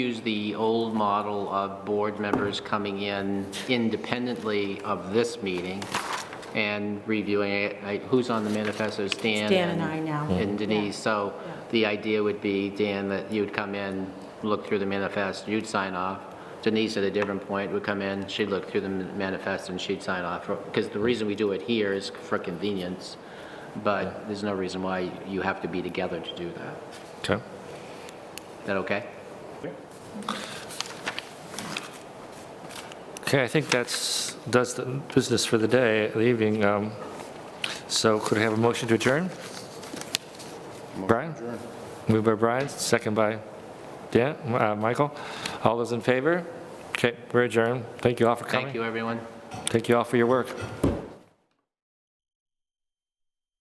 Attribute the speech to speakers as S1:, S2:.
S1: Use the old model of board members coming in independently of this meeting and reviewing it. I- Who's on the manifesto? It's Dan.
S2: It's Dan and I now.
S1: And Denise. So the idea would be, Dan, that you'd come in, look through the manifest, you'd sign off. Denise, at a different point, would come in, she'd look through the manifest and she'd sign off. Because the reason we do it here is for convenience, but there's no reason why you have to be together to do that.
S3: Okay.
S1: Is that okay?
S3: Okay, I think that's, does the business for the day, the evening. Um, So could I have a motion to adjourn? Brian? Moved by Brian, second by Dan, uh, Michael. All those in favor? Okay, we're adjourned. Thank you all for coming.
S1: Thank you, everyone.
S3: Thank you all for your work.